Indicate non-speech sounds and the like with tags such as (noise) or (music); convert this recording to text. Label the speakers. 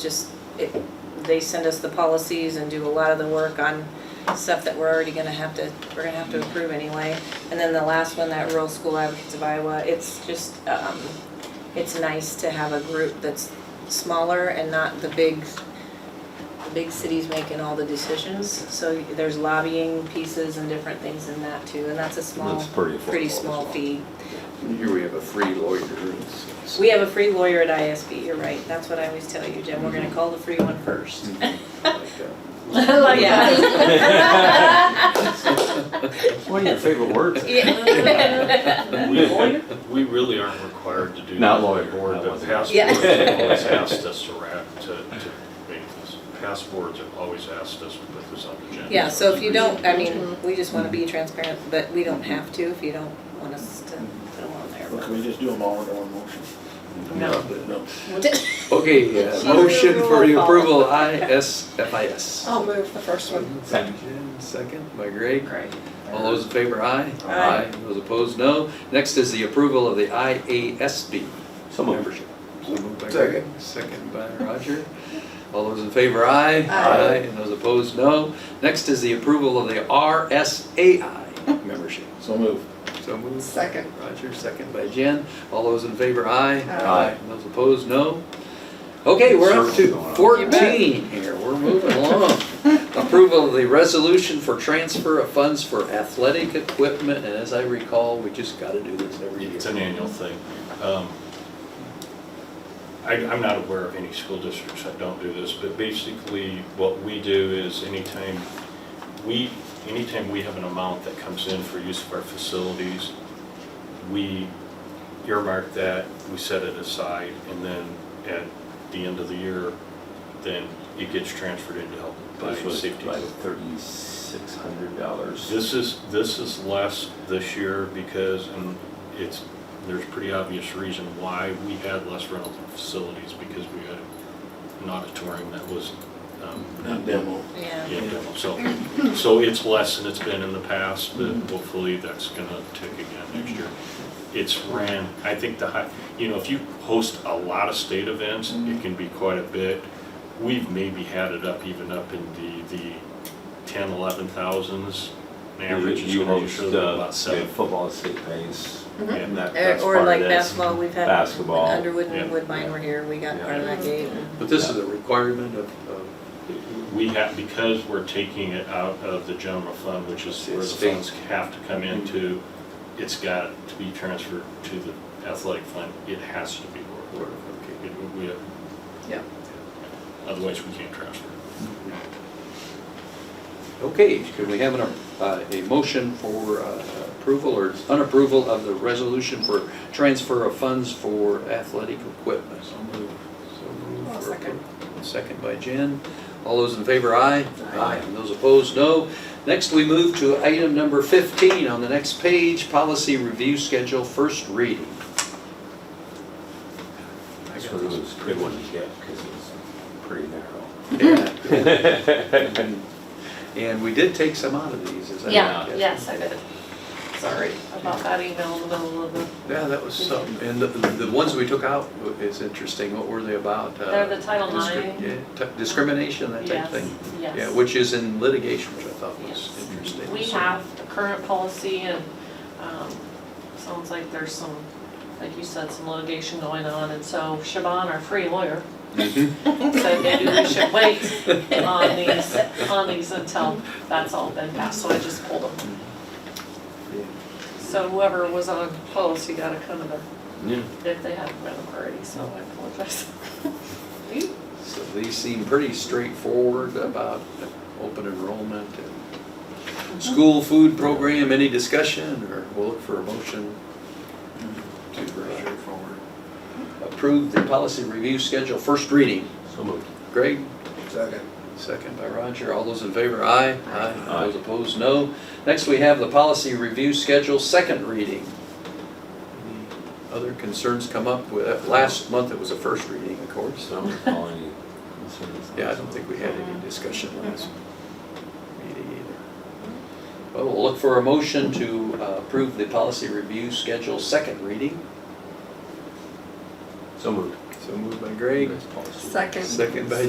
Speaker 1: just, it, they send us the policies and do a lot of the work on stuff that we're already gonna have to, we're gonna have to approve anyway. And then the last one, that Rural School Advocates of Iowa, it's just, um, it's nice to have a group that's smaller and not the big, the big cities making all the decisions. So there's lobbying pieces and different things in that too, and that's a small,
Speaker 2: That's pretty affordable
Speaker 1: pretty
Speaker 2: as
Speaker 1: small
Speaker 2: well.
Speaker 1: fee.
Speaker 3: Here we have a free lawyer. It's- it's-
Speaker 1: We have a free lawyer at ISB, you're right, that's what I always tell you, Jim, we're
Speaker 2: Mm-hmm.
Speaker 1: gonna call the free one first.
Speaker 3: like, uh,
Speaker 1: Like that.
Speaker 2: One of your
Speaker 1: (laughs)
Speaker 2: favorite words.
Speaker 1: Yeah.
Speaker 4: We, we really aren't required to do.
Speaker 2: Not
Speaker 4: that.
Speaker 2: lawyer,
Speaker 4: The Board,
Speaker 2: that
Speaker 4: the
Speaker 2: wasn't-
Speaker 4: past
Speaker 1: Yeah.
Speaker 4: boards have always asked us to ra to, to make this, past boards have always asked us to put this on the agenda.
Speaker 1: Yeah, so if you don't, I mean, we just wanna be transparent, but we don't have to if you don't want us to put them on there.
Speaker 5: Well, Can we just do them all in one motion?
Speaker 1: No.
Speaker 5: No.
Speaker 3: Okay, uh,
Speaker 1: She's a
Speaker 3: motion for the
Speaker 1: rule
Speaker 3: approval, ISFIS.
Speaker 1: Oh,
Speaker 6: I'll move the first one.
Speaker 2: Second.
Speaker 3: Second by Greg.
Speaker 1: Right.
Speaker 3: All those in favor, aye.
Speaker 1: Aye.
Speaker 3: Those opposed, no. Next is the approval of the IASB
Speaker 2: So moved.
Speaker 3: membership. So moved by Greg, Second by Roger. All those in favor, aye.
Speaker 6: Aye.
Speaker 3: And those opposed, no. Next is the approval of the RSAI membership.
Speaker 5: So move.
Speaker 3: So moved.
Speaker 6: Second.
Speaker 3: Roger, second by Jen. All those in favor, aye.
Speaker 6: Aye.
Speaker 3: Those opposed, no. Okay, we're up
Speaker 2: Circle's
Speaker 3: to
Speaker 2: going on.
Speaker 3: 14 here. We're moving along. Approval of the resolution for transfer of funds for athletic equipment, and as I recall, we just got to do this every year.
Speaker 4: It's an annual thing. Um, I, I'm not aware of any school districts that don't do this, but basically what we do is anytime we, anytime we have an amount that comes in for use of our facilities, we earmark that, we set it aside, and then at the end of the year, then it gets transferred into health by
Speaker 2: This was
Speaker 4: safety.
Speaker 2: by thirty-six hundred dollars.
Speaker 4: This is, this is less this year because, and it's, there's pretty obvious reason why we had less rentals in facilities because we had an auditorium that was, um,
Speaker 5: Not demo.
Speaker 1: Yeah.
Speaker 4: yeah, demo. so, so it's less than it's been in the past, but hopefully that's gonna tick again next year. It's ran, I think the high, you know, if you host a lot of state events, it can be quite a bit. We've maybe had it up even up in the, the ten, eleven thousands. An average is
Speaker 2: You
Speaker 4: gonna
Speaker 2: host,
Speaker 4: usually be
Speaker 2: uh,
Speaker 4: about
Speaker 2: yeah,
Speaker 4: seven.
Speaker 2: football, state pays,
Speaker 1: Mhm.
Speaker 2: and that,
Speaker 1: Uh,
Speaker 2: that's part
Speaker 1: Or
Speaker 2: of
Speaker 1: like
Speaker 2: this.
Speaker 1: basketball, we've had
Speaker 2: Basketball.
Speaker 1: Underwood
Speaker 4: Yeah.
Speaker 1: and Woodbine were here, we got part of that gate.
Speaker 3: But this is a requirement of, of
Speaker 4: We have, because we're taking it out of the general fund, which is where the
Speaker 3: State.
Speaker 4: funds have to come into, it's got to be transferred to the athletic fund. It has to be.
Speaker 3: Or,
Speaker 4: or- or-
Speaker 3: okay.
Speaker 4: it- we have-
Speaker 6: Yeah.
Speaker 4: Otherwise, we can't transfer.
Speaker 3: Okay, can we have an, uh, a motion for uh, approval or unapproval of the resolution for transfer of funds for athletic equipment? So moved. So moved.
Speaker 6: I'll
Speaker 3: for
Speaker 6: second.
Speaker 3: appro- Second by Jen. All those in favor, aye.
Speaker 6: Aye.
Speaker 3: And those opposed, no. Next, we move to item number 15 on the next page, policy review schedule, first (laughs) reading.
Speaker 2: This one was a good one to get, because it was pretty narrow.
Speaker 4: (laughs)
Speaker 3: Yeah. And we did take some out of these, is that?
Speaker 6: Yeah, yes, I did. Sorry about that email in the middle of the,
Speaker 3: Yeah, that was something, and the, the ones we took out is interesting, what were they about? Uh,
Speaker 6: they're the Title
Speaker 3: discri-
Speaker 6: IX.
Speaker 3: yeah, t- Discrimination, that type of thing?
Speaker 6: Yes,
Speaker 3: Yeah,
Speaker 6: yes.
Speaker 3: which is in litigation, which I thought
Speaker 6: Yes.
Speaker 3: was interesting.
Speaker 6: We
Speaker 3: so.
Speaker 6: have the current policy and, um, sounds like there's some, like you said, some litigation going on. And so Siobhan, our free lawyer,
Speaker 3: Mhm.
Speaker 6: said maybe we should wait on these, on these until that's all been passed. So I just pulled them. So whoever was on policy got a kind of a
Speaker 2: Yeah.
Speaker 6: if they haven't read them already, so I apologize.
Speaker 3: So these seem pretty straightforward about open enrollment and
Speaker 6: Mm-hmm.
Speaker 3: school food program, any discussion, or we'll look for a motion to uh,
Speaker 5: forward.
Speaker 3: approve the policy review schedule, first reading.
Speaker 2: So moved.
Speaker 3: Greg?
Speaker 5: Second.
Speaker 3: Second by Roger. All those in favor, aye. Aye.
Speaker 2: Aye.
Speaker 3: Those opposed, no. Next, we have the policy review schedule, second reading. Any Other concerns come up with, uh, last month it was a first reading, of course.
Speaker 2: So I'm not calling any concerns.
Speaker 3: Yeah, I don't think we had any discussion last meeting either. Well, we'll look for a motion to uh, approve the policy review schedule, second reading.
Speaker 2: So moved.
Speaker 3: So
Speaker 6: So moved by Greg,
Speaker 7: Nice policy.
Speaker 3: Second.
Speaker 6: second by